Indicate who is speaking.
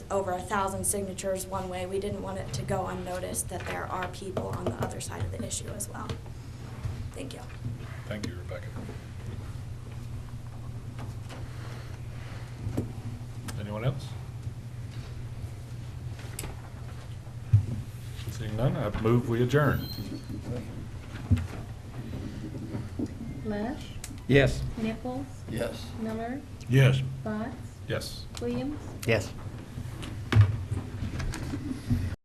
Speaker 1: over a thousand signatures one way, we didn't want it to go unnoticed that there are people on the other side of the issue as well. Thank you.
Speaker 2: Thank you, Rebecca. Anyone else? Seeing none, I move we adjourn.
Speaker 3: Lesh,
Speaker 4: Yes.
Speaker 3: Nichols,
Speaker 5: Yes.
Speaker 3: Miller,
Speaker 2: Yes.
Speaker 3: Botts,
Speaker 2: Yes.
Speaker 3: Williams,
Speaker 4: Yes.